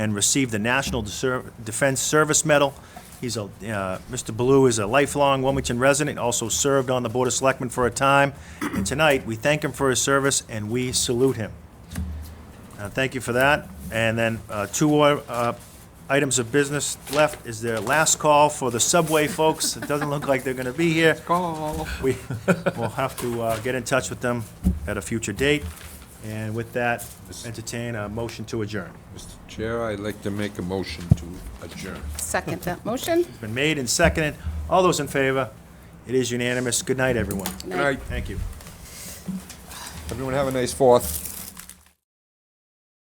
and received the National Deser- Defense Service Medal. He's a, uh, Mr. Blue is a lifelong Wilmington resident, also served on the Board of Selectmen for a time. And tonight, we thank him for his service and we salute him. Uh, Thank you for that. And then uh, two uh, items of business left is their last call for the subway folks. It doesn't look like they're going to be here. Call. We will have to uh, get in touch with them at a future date. And with that, entertain a motion to adjourn. Mr. Chair, I'd like to make a motion to adjourn. Second that motion. It's been made and seconded. All those in favor? It is unanimous. Good night, everyone. Good night. Thank you. Everyone have a nice fourth.